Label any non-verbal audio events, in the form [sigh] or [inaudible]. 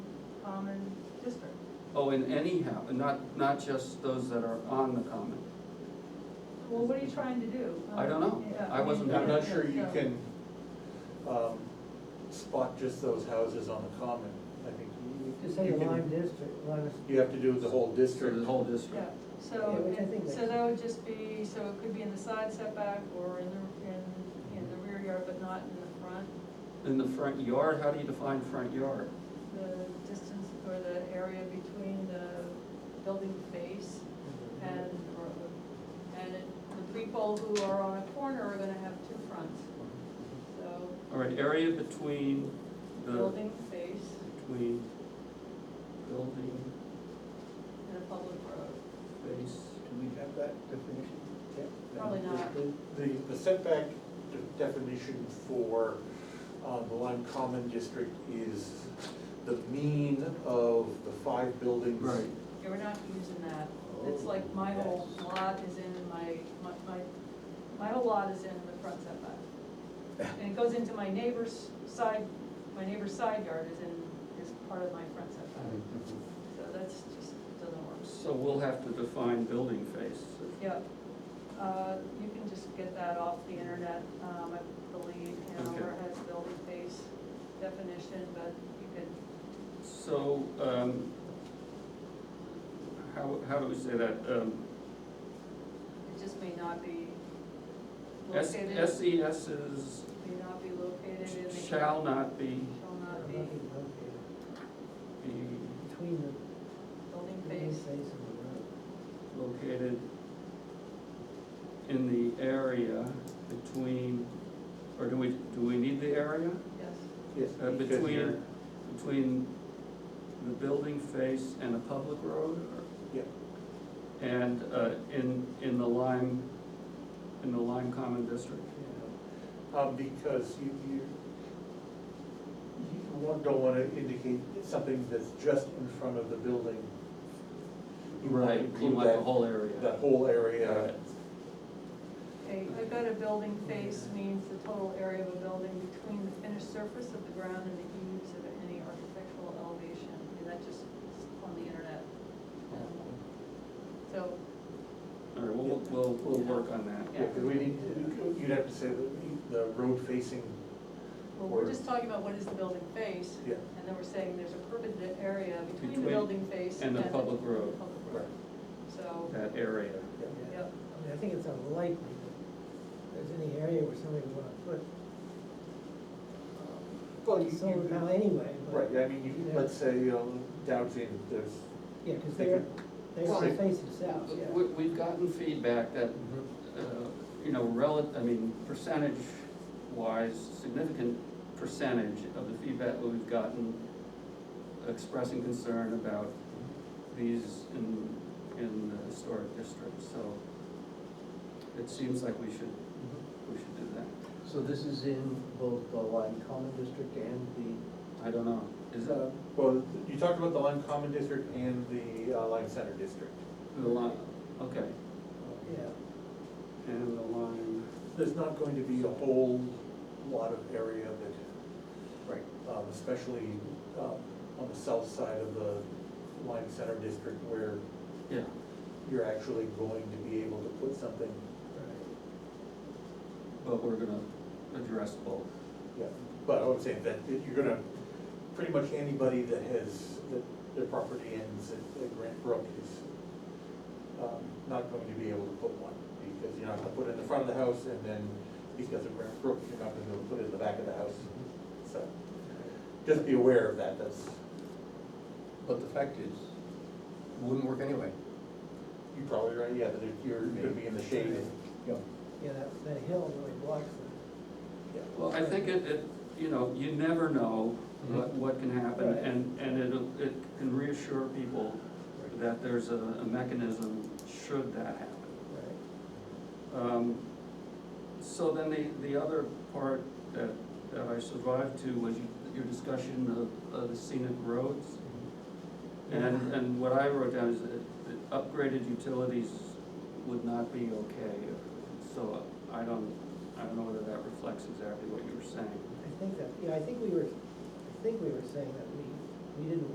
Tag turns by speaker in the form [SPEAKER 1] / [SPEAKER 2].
[SPEAKER 1] common district.
[SPEAKER 2] Oh, in any house, not, not just those that are on the common.
[SPEAKER 1] Well, what are you trying to do?
[SPEAKER 2] I don't know.
[SPEAKER 1] Yeah,
[SPEAKER 2] I wasn't-
[SPEAKER 1] mean,
[SPEAKER 3] I'm not sure you
[SPEAKER 1] so-
[SPEAKER 3] can, um, spot just those houses on the common, I think. you-
[SPEAKER 4] To say
[SPEAKER 3] you
[SPEAKER 4] the
[SPEAKER 3] can-
[SPEAKER 4] Lime District, Lime is-
[SPEAKER 3] You have to do the whole
[SPEAKER 2] So the
[SPEAKER 3] district.
[SPEAKER 2] whole
[SPEAKER 1] Yeah,
[SPEAKER 2] district.
[SPEAKER 4] Yeah,
[SPEAKER 1] so,
[SPEAKER 4] which I think
[SPEAKER 1] so
[SPEAKER 4] makes-
[SPEAKER 1] that would just be, so it could be in the side setback or in the, in, in the rear yard, but not in the front.
[SPEAKER 2] In the front yard, how do you define front yard?
[SPEAKER 1] The distance or the area between the building face
[SPEAKER 3] Mm-hmm.
[SPEAKER 1] and, or, and it- the people who are on a corner are gonna have two fronts. So,
[SPEAKER 2] All right, area between the,
[SPEAKER 1] building face
[SPEAKER 2] between building
[SPEAKER 1] and a public road.
[SPEAKER 2] face,
[SPEAKER 5] Do we have that definition? Yeah.
[SPEAKER 1] Probably not.
[SPEAKER 3] The, the setback de- definition for, um, the Lime Common District is the mean of the five buildings.
[SPEAKER 2] Right.
[SPEAKER 1] Yeah, we're not using that. It's like my
[SPEAKER 2] Oh,
[SPEAKER 1] whole lot is in my, my, my- my whole lot is in the front setback.
[SPEAKER 2] [laughs]
[SPEAKER 1] And it goes into my neighbor's side, my neighbor's side yard is in, is part of my front setback. So that's just, doesn't work.
[SPEAKER 2] So we'll have to define building face.
[SPEAKER 1] Yep. Uh, You can just get that off the internet, um, I believe, Hanover
[SPEAKER 2] Okay.
[SPEAKER 1] has building face definition, but you could,
[SPEAKER 2] So, um, how, how do we say that? Um,
[SPEAKER 1] it just may not be
[SPEAKER 2] S-
[SPEAKER 1] located,
[SPEAKER 2] SES is,
[SPEAKER 1] may not be located in the.
[SPEAKER 2] shall not be,
[SPEAKER 1] Shall not be
[SPEAKER 4] Nothing located
[SPEAKER 2] be
[SPEAKER 4] Between the
[SPEAKER 1] building
[SPEAKER 4] green
[SPEAKER 1] face.
[SPEAKER 4] space and the road.
[SPEAKER 2] located in the area between, or do we, do we need the area?
[SPEAKER 1] Yes,
[SPEAKER 3] Yes.
[SPEAKER 2] Uh,
[SPEAKER 3] because
[SPEAKER 2] Between,
[SPEAKER 3] you're-
[SPEAKER 2] between the building face and a public road? or-
[SPEAKER 3] Yeah,
[SPEAKER 2] And uh, in, in the Lime, in the Lime Common District?
[SPEAKER 3] yeah. Um, because you, you, you want- don't wanna indicate something that's just in front of the building. You wanna
[SPEAKER 2] You
[SPEAKER 3] include
[SPEAKER 2] want the
[SPEAKER 3] that-
[SPEAKER 2] whole area?
[SPEAKER 3] That whole area,
[SPEAKER 2] Alright.
[SPEAKER 1] okay, I've got a building face means the total area of a building between the finished surface of the ground and the eaves of any architectural elevation, I mean, that just is on the internet. So,
[SPEAKER 2] All right, we'll, we'll, we'll work on
[SPEAKER 3] Yeah,
[SPEAKER 2] that.
[SPEAKER 3] because we need, you'd have to say the, the road facing,
[SPEAKER 1] well, we're just talking about what is the building face,
[SPEAKER 3] yeah,
[SPEAKER 1] and then we're saying there's a perpendicular area between the
[SPEAKER 2] Between
[SPEAKER 1] building face
[SPEAKER 2] and the public road.
[SPEAKER 1] public
[SPEAKER 3] right,
[SPEAKER 1] road. So,
[SPEAKER 2] That area.
[SPEAKER 3] yeah.
[SPEAKER 4] Yeah.
[SPEAKER 1] Yep.
[SPEAKER 4] I mean, I think it's unlikely that there's any area where somebody would wanna put um,
[SPEAKER 3] Well, you,
[SPEAKER 4] solar panel
[SPEAKER 3] you,
[SPEAKER 4] anyway, but.
[SPEAKER 3] right, I mean, you, let's say, um, downtown, there's,
[SPEAKER 4] Yeah, cause
[SPEAKER 3] they
[SPEAKER 4] they're,
[SPEAKER 3] could-
[SPEAKER 4] they're
[SPEAKER 2] Well,
[SPEAKER 4] gonna face it south, yeah.
[SPEAKER 2] We, we've gotten feedback that, uh, you know, rel, I mean, percentage wise, significant percentage of the feedback that we've gotten expressing concern about these in, in the historic district, so it seems like we should, we should do that.
[SPEAKER 5] So this is in both the Lime Common District and the,
[SPEAKER 2] I don't know, is that
[SPEAKER 3] uh, well, you talked about the Lime Common District and the uh, Lime Center District.
[SPEAKER 2] the line, okay,
[SPEAKER 4] Yeah,
[SPEAKER 2] and the line,
[SPEAKER 3] There's not going to be a whole lot of area that,
[SPEAKER 5] right,
[SPEAKER 3] um, especially, um, on the south side of the Lime Center District where
[SPEAKER 2] yeah.
[SPEAKER 3] you're actually going to be able to put something,
[SPEAKER 4] right.
[SPEAKER 2] But we're gonna address both.
[SPEAKER 3] yeah. But I would say that you're gonna, pretty much anybody that has, that their property ends at, at Grant Brook is, um, not going to be able to put one, because you're not gonna put it in the front of the house, and then because of Grant Brook, you're not gonna be able to put it in the back of the house, so. Just be aware of that, that's,
[SPEAKER 5] but the fact is, it wouldn't work anyway.
[SPEAKER 3] you're probably right, yeah, that you're gonna be in the shade,
[SPEAKER 5] Yeah.
[SPEAKER 4] Yeah, that, that hill really blocks
[SPEAKER 3] yeah.
[SPEAKER 2] Well, I think it, it, you know, you never know what, what can happen,
[SPEAKER 4] Right.
[SPEAKER 2] and, and it'll, it can reassure people that there's a, a mechanism should that happen.
[SPEAKER 4] it, right.
[SPEAKER 2] Um, So then the, the other part that, that I survived to was you- your discussion of, of the scenic roads. And, and what I wrote down is that that upgraded utilities would not be okay, so I don't, I don't know whether that reflects exactly what you were saying.
[SPEAKER 4] I think that, yeah, I think we were, I think we were saying that we, we didn't